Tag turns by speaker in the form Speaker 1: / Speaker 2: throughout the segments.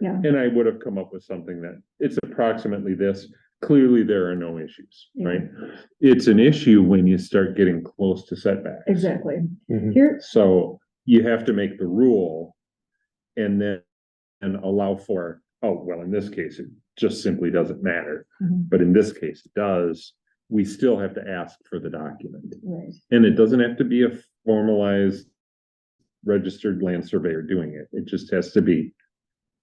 Speaker 1: Yeah.
Speaker 2: And I would have come up with something that it's approximately this. Clearly, there are no issues, right? It's an issue when you start getting close to setbacks.
Speaker 1: Exactly.
Speaker 3: Mhm.
Speaker 1: Here,
Speaker 2: So you have to make the rule and then, and allow for, oh, well, in this case, it just simply doesn't matter.
Speaker 1: Mhm.
Speaker 2: But in this case, it does. We still have to ask for the document.
Speaker 1: right,
Speaker 2: And it doesn't have to be a formalized registered land surveyor doing it. It just has to be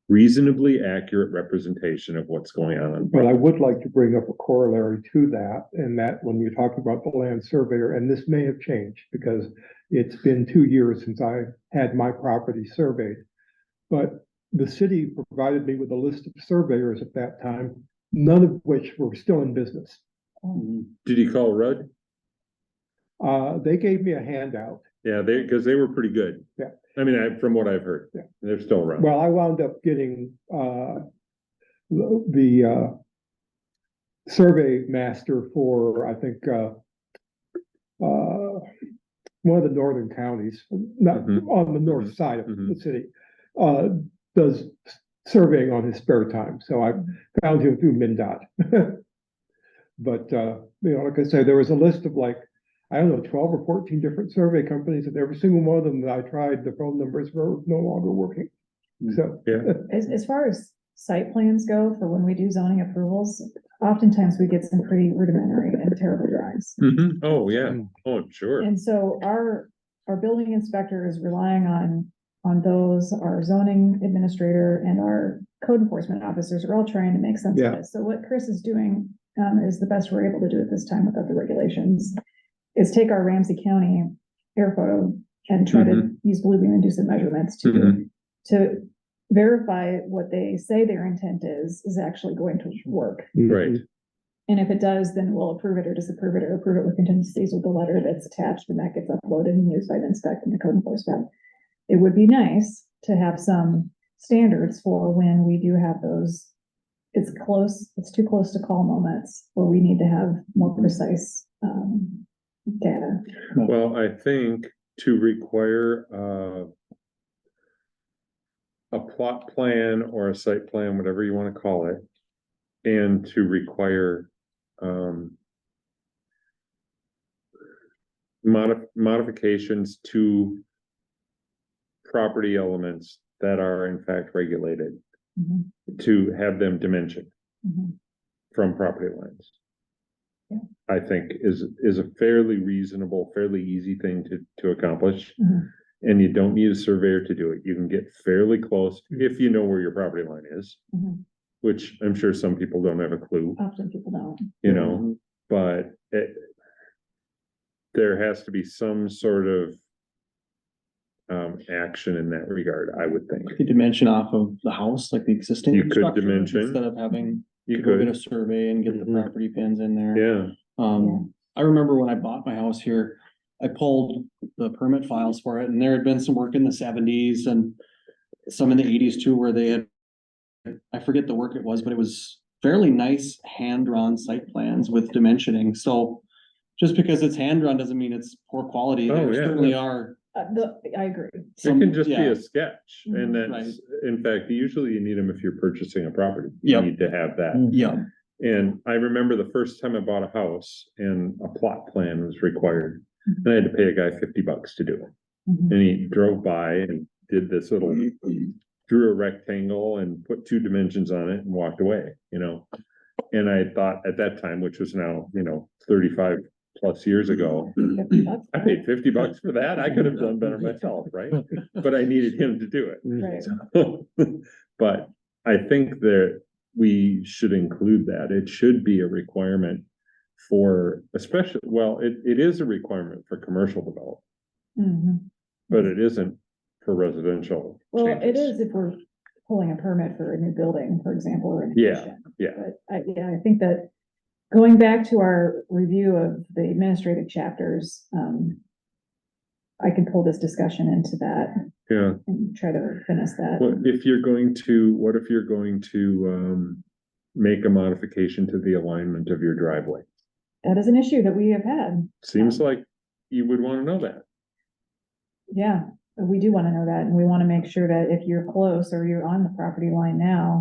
Speaker 2: reasonably accurate representation of what's going on.
Speaker 3: But I would like to bring up a corollary to that, and that when you talk about the land surveyor, and this may have changed because it's been two years since I had my property surveyed. But the city provided me with a list of surveyors at that time, none of which were still in business.
Speaker 2: Did you call Rudd?
Speaker 3: Uh, they gave me a handout.
Speaker 2: Yeah, they, because they were pretty good.
Speaker 3: Yeah.
Speaker 2: I mean, I, from what I've heard.
Speaker 3: Yeah.
Speaker 2: They're still around.
Speaker 3: Well, I wound up getting, uh, the, uh, survey master for, I think, uh, uh, one of the northern counties, not
Speaker 2: Mhm.
Speaker 3: on the north
Speaker 2: Mhm.
Speaker 3: side of the
Speaker 2: Mhm.
Speaker 3: city, uh, does surveying on his spare time. So I found him through MinDOT. But, uh, you know, like I say, there was a list of like, I don't know, twelve or fourteen different survey companies, and every single one of them that I tried, the phone numbers were no longer working.
Speaker 2: Mm.
Speaker 3: So,
Speaker 1: as, as far as site plans go, for when we do zoning approvals, oftentimes we get some pretty rudimentary and terrible drawings.
Speaker 2: Mhm. Oh, yeah. Oh, sure.
Speaker 1: And so our, our building inspector is relying on, on those, our zoning administrator and our code enforcement officers are all trying to make sense of
Speaker 3: Yeah.
Speaker 1: this. So what Chris is doing, um, is the best we're able to do at this time without the regulations, is take our Ramsey County air photo and try to use blue beam inducent measurements to,
Speaker 2: Mhm.
Speaker 1: to verify what they say their intent is, is actually going to work.
Speaker 2: Right.
Speaker 1: And if it does, then we'll approve it or disapprove it or approve it with contingencies with the letter that's attached and that gets uploaded and used by the inspect and the code enforcement. It would be nice to have some standards for when we do have those. It's close, it's too close to call moments where we need to have more precise um data.
Speaker 2: Well, I think to require, uh, a plot plan or a site plan, whatever you want to call it, and to require, um, modi- modifications to property elements that are in fact regulated,
Speaker 1: Mhm,
Speaker 2: to have them dimensioned
Speaker 1: mhm.
Speaker 2: from property lines.
Speaker 1: Yeah.
Speaker 2: I think is, is a fairly reasonable, fairly easy thing to, to accomplish.
Speaker 1: Mhm.
Speaker 2: And you don't need a surveyor to do it. You can get fairly close if you know where your property line is.
Speaker 1: Mhm.
Speaker 2: Which I'm sure some people don't have a clue,
Speaker 1: Often people don't.
Speaker 2: you know, but it. There has to be some sort of. Um, action in that regard, I would think.
Speaker 4: Could you dimension off of the house, like the existing.
Speaker 2: You could
Speaker 4: structure,
Speaker 2: dimension.
Speaker 4: Instead of having,
Speaker 2: You
Speaker 4: could go get
Speaker 2: could, Mm-hmm.
Speaker 4: a survey and get the
Speaker 3: Mhm.
Speaker 4: property pins in there.
Speaker 2: yeah,
Speaker 4: Um, I remember when I bought my house here, I pulled the permit files for it and there had been some work in the seventies and some in the eighties too, where they had, I forget the work it was, but it was fairly nice hand-drawn site plans with dimensioning. So just because it's hand-drawn doesn't mean it's poor quality.
Speaker 2: Oh,
Speaker 4: There
Speaker 2: yeah.
Speaker 4: certainly are.
Speaker 1: Uh, the, I agree.
Speaker 2: it
Speaker 4: some-
Speaker 2: can just be
Speaker 4: yeah. Mm-hmm,
Speaker 2: a sketch and
Speaker 1: Mhm.
Speaker 2: that's, in fact, usually you need them if you're purchasing a property. You
Speaker 4: Yep. Mm.
Speaker 2: Need to have that.
Speaker 4: Yeah,
Speaker 2: And I remember the first time I bought a house and a plot plan was required.
Speaker 4: Mm-hmm.
Speaker 2: And I had to pay a guy fifty bucks to do it.
Speaker 1: Mhm.
Speaker 2: And he drove by and did this little, drew a rectangle and put two dimensions on it and walked away, you know? And I thought at that time, which was now, you know, thirty-five plus years ago,
Speaker 1: Fifty bucks.
Speaker 2: I paid fifty bucks for that. I could have done better myself, right? But I needed him to do it.
Speaker 1: Right.
Speaker 2: But I think that we should include that. It should be a requirement for especially, well, it, it is a requirement for commercial development,
Speaker 1: Mhm.
Speaker 2: but it isn't for residential.
Speaker 1: Well, it
Speaker 2: changes.
Speaker 1: is if we're pulling a permit for a new building, for example, or an
Speaker 2: Yeah,
Speaker 1: addition.
Speaker 2: yeah.
Speaker 1: But I, yeah, I think that going back to our review of the administrative chapters, um, I can pull this discussion into that
Speaker 2: Yeah,
Speaker 1: and try to finish that.
Speaker 2: what if you're going to, what if you're going to, um, make a modification to the alignment of your driveway?
Speaker 1: That is an issue that we have had.
Speaker 2: Seems like you would wanna know that.
Speaker 1: Yeah, we do wanna know that, and we wanna make sure that if you're close or you're on the property line now,